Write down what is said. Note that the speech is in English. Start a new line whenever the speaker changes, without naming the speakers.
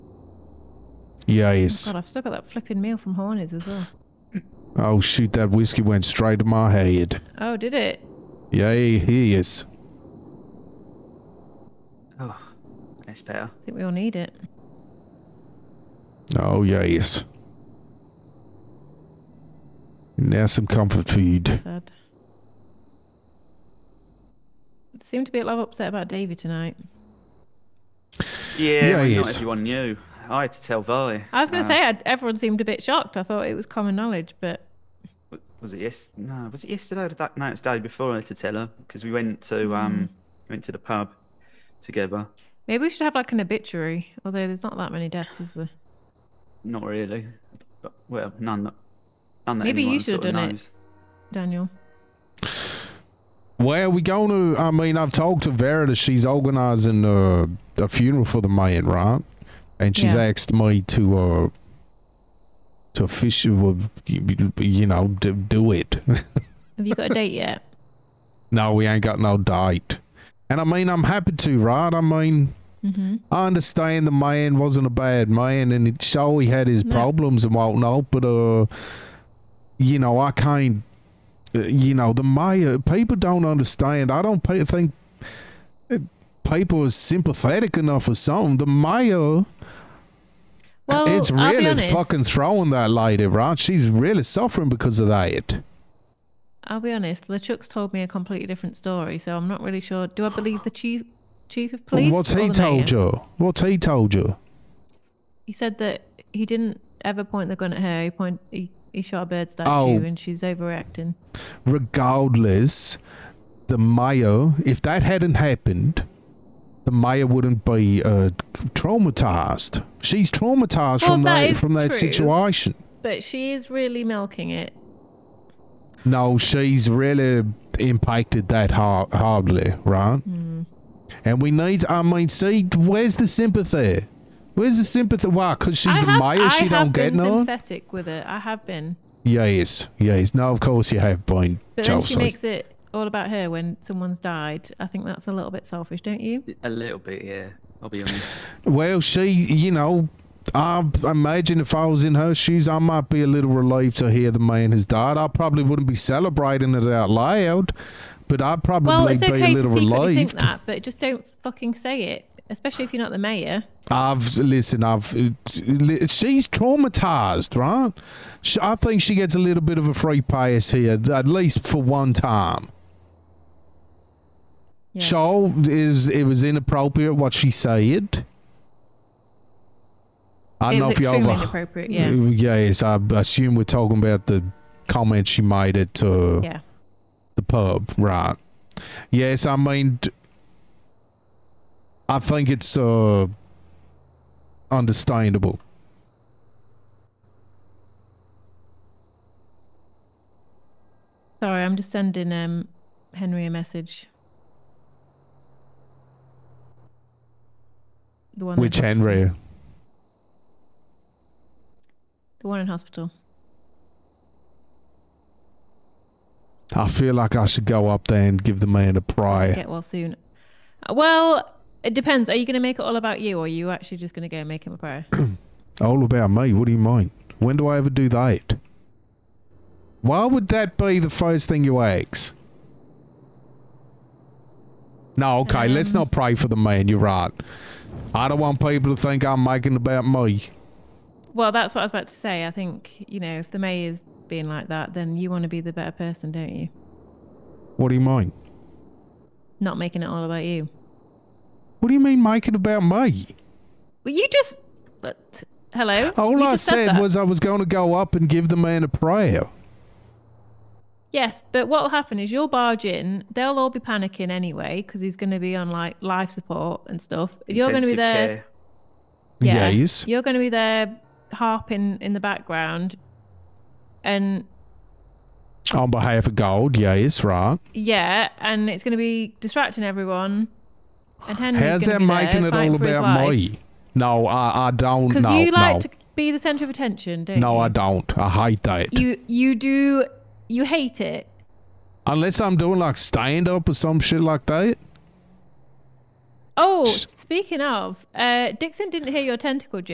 Yes.
God, I've still got that flipping meal from Hornies as well.
Oh shoot, that whiskey went straight to my head.
Oh, did it?
Yay, yes.
Oh, that's better.
I think we all need it.
Oh yes. Now some comfort food.
Sad. They seem to be a lot upset about Davy tonight.
Yeah,
Yeah,
well,
he
not
is.
everyone knew. I had to tell Vi.
I was going to
Uh,
say, i everyone seemed a bit shocked. I thought it was common knowledge, but
w- Was it yes? No, was it yesterday or the that night? day before I had to tell her because we went to
Mm.
um went to the pub together.
maybe we should have like an obituary. Although there's not that many deaths, is there?
Not really. But, well, none that none that
Maybe you
anyone
should have
sort of
done it.
knows.
Daniel.
Well, we gonna I mean I've talked to Verita, she's organizing uh, a funeral for the man, right? And she's
Yeah.
asked me to uh to fish you know, do, do it.
Have you got a date yet?
no, we ain't got no date. And I mean I'm happy to, right? I mean
hmm
I understand the man wasn't a bad man, and it sure he had his
No.
problems and whatnot. But uh, you know, I can't. Uh, you know, the mayor people don't understand. I don't pe- think uh, people are sympathetic enough or something. The mayor,
Well,
it's
I'll be
really
honest.
fucking throwing that lady, right? She's really suffering because of that.
I'll be honest. LeChuck's told me a completely different story, so I'm not really sure. Do I believe the chief, chief of police?
What's
or
he
the mayor?
told you? What's he told you?
He said that he didn't ever point the gun at her. He point he, he shot a bird statue,
Oh.
and she's overreacting.
regardless, the mayor, if that hadn't happened, the mayor wouldn't be uh, traumatized. She's traumatized
Well,
from
that
that,
is
from that
true.
situation.
But she is really milking it.
No, she's really impacted that hard, hardly, right?
Hmm.
And we need, I mean, see, where's the sympathy? Where's the sympathy? Why? Because she's
I
the
have,
mayor,
I
she
have
don't get
been
none?
sympathetic with it. I have been,
Yes, yes. No, of course you have been,
but then she
Chelsea.
makes it all about her when someone's died. I think that's a little bit selfish, don't you?
A little bit, yeah. I'll be honest.
Well, she, you know, I imagine if I was in her shoes, I might be a little relieved to hear the man has died. I probably wouldn't be celebrating it out loud, but I'd probably
Well, it's
be
okay
a
to
little
secretly think
relieved.
that, but just don't fucking say it, especially if you're not the mayor.
I've listen. I've li- she's traumatized, right? She, I think she gets a little bit of a free pass here, at least for one time.
Yeah.
So is it was inappropriate what she said. I
it
know
was
if you
extremely
over.
inappropriate. Yeah,
Uh, Yes, I assume we're talking about the comment she made at uh,
yeah.
the pub, right? Yes, I mean, d- I think it's uh, understandable.
Sorry, I'm just sending um Henry a message. The one in
Which
hospital.
Henry?
The one in hospital.
I feel like I should go up there and give the man a prayer.
Get well soon. Uh, Well, it depends. Are you going to make it all about you, or are you actually just going to go and make him a prayer?
All about me. What do you mean? When do I ever do that? Why would that be the first thing you ask? No, okay, let's
Um,
not pray for the man. You're right. I don't want people to think I'm making about me.
well, that's what I was about to say. I think you know, if the mayor's being like that, then you want to be the better person, don't you?
What do you mean?
Not making it all about you.
What do you mean making about me?
Well, you just. But, hello.
All
You
I
just said
said
that.
was I was going to go up and give the man a prayer.
Yes, but what will happen is you'll barge in. They'll all be panicking anyway because he's going to be on like life support and stuff. You're going to be
Intensive
there.
care.
Yeah,
Yes.
You're going to be there harping in the background, and
On behalf of God, yes, right.
yeah, and it's going to be distracting everyone. And Henry's
How's that
gonna be there
making it
fighting
all
for his
about
life.
me? No, I, I don't.
Because
No,
you like
no.
to be the centre of attention, don't you?
no, I don't. I hate that.
You you do you hate it.
Unless I'm doing like stand up or some shit like that.
Oh, speaking of, uh, Dixon didn't hear your tentacle, Jim.